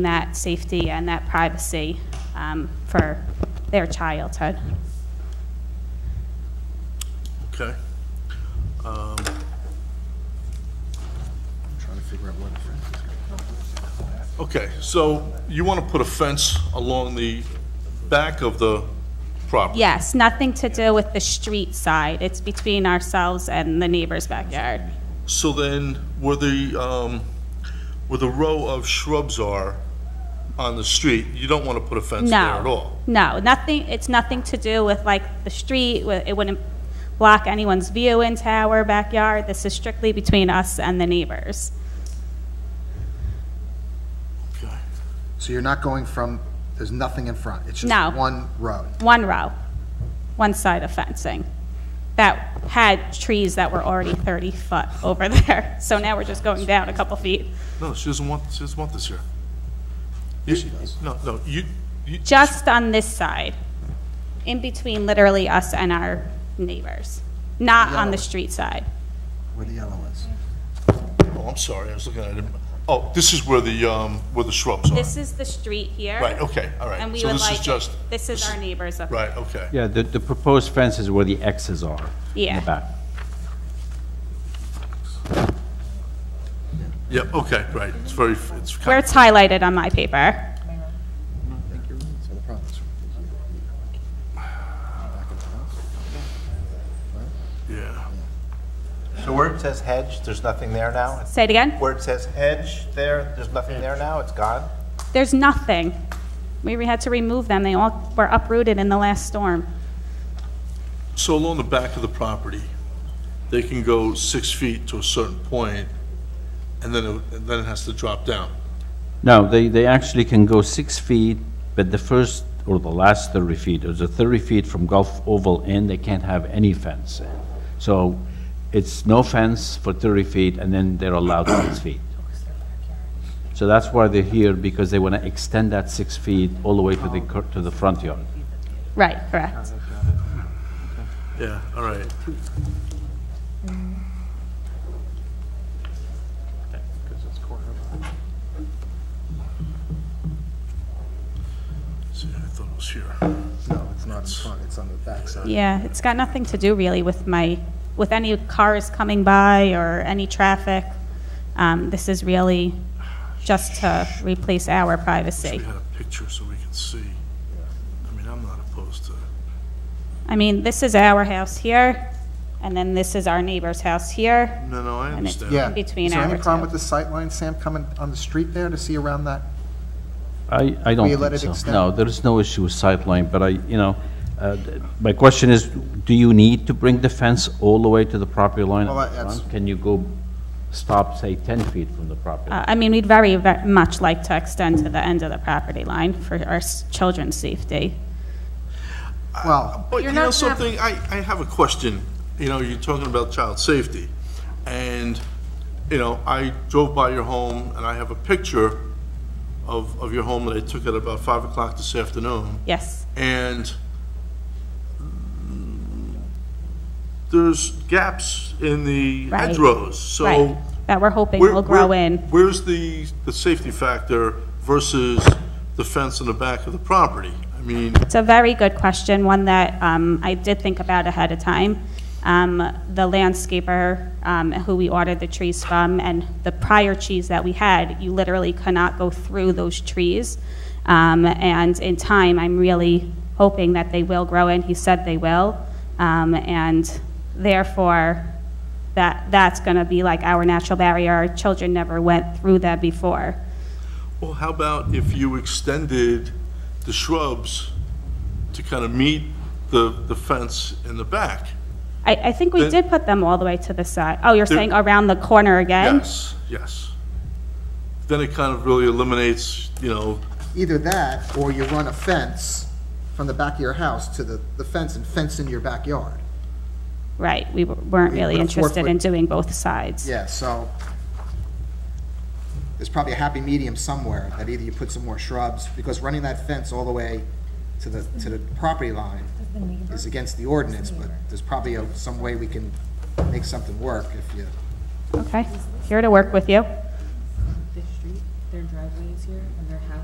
that safety and that privacy um, for their childhood. Okay. Um, Trying to figure out where the fence is going. Okay, so you want to put a fence along the back of the property? Yes, nothing to do with the street side. It's between ourselves and the neighbor's backyard. So then, where the, um, where the row of shrubs are on the street, you don't want to put a fence there at No, all? no, nothing, it's nothing to do with like the street, wi- it wouldn't block anyone's view into our backyard. This is strictly between us and the neighbors. Okay. So you're not going from, there's nothing in front, it's No. just one road? One row, one side of fencing that had trees that were already 30 foot over there. So now we're just going down a couple feet. No, she doesn't want, she doesn't want this here. she does. No, no, you, you, just on this side, in between literally us and our neighbors, not on the street side. Where the yellow is. oh, I'm sorry, I was looking at it. Oh, this is where the, um, where the shrubs are? This is the street here. Right, okay, all right. And we So would this is like, just- this is our neighbors up. Right, okay. Yeah, the, the proposed fence is where the X's are. In Yeah. the back. Yeah, okay, right, it's very, it's kind Where it's highlighted on my paper. So the problem is from here to here. Back of the house. of, yeah. So where it says hedge, there's nothing there now? It's- Say it again. Where it says hedge there, there's nothing there now? It's gone? There's nothing. We re- had to remove them. They all were uprooted in the last storm. So along the back of the property, they can go six feet to a certain point, and then, it- and then it has to drop down. No, they, they actually can go six feet, but the first or the last thirty feet, or the thirty feet from Gulf Oval in, they can't have any fence in. So it's no fence for thirty feet, and then they're allowed six feet. So that's why they're here, because they want to extend that six feet all the way to the, cur- to the front yard. Right, correct. Yeah, all right. See, I thought it was here. No, it's not in front, it's on the back side. Yeah, it's got nothing to do really with my, with any cars coming by or any traffic. Um, This is really just to replace our Wish privacy. we had a picture so we could see. I mean, I'm not opposed to, I mean, this is our house here, and then this is our neighbor's house here. no, no, I And it's- understand. Yeah. Between Is there our any problem two. with the sight line, Sam, coming on the street there to see around that? I, I don't you let it think so. extend? No, there is no issue with sightline, but I, you know, uh, th- my question is, do you need to bring the fence all the way to the property line? Well, up that- that's- front? Can you go stop, say, 10 feet from the property? line? Uh, I mean, we'd very, very much like to extend to the end of the property line for our s- children's safety. Well, But you know something, I, I have a question. You know, you're talking about child safety. And, you know, I drove by your home and I have a picture of, of your home that I took at about five o'clock this afternoon. Yes, And mm, there's gaps in the Right. hedgerows, so. right, that we're hoping where- will grow where- in. Where's the, the safety factor versus the fence in the back of the property? I mean, It's a very good question, one that um, I did think about ahead of time. Um, The landscaper um, who we ordered the trees from and the prior trees that we had, you literally cannot go through those trees. Um, And in time, I'm really hoping that they will grow in. He said they will. Um, And therefore, that, that's going to be like our natural barrier. Our children never went through that before. Well, how about if you extended the shrubs to kind of meet the, the fence in the back? I, I think we Then- did put them all the way to the side. Oh, you're There- saying around the corner again? Yes, yes. Then it kind of really eliminates, you know, either that, or you run a fence from the back of your house to the, the fence and fence in your backyard. Right, we w- weren't We really put a four interested in foot- doing both sides. Yeah, so there's probably a happy medium somewhere, that either you put some more shrubs, because running that fence all the way to the, to the property line is against the ordinance, but there's probably a- some way we can make something work if you, Okay, here to work with you. the street, their driveways here and their house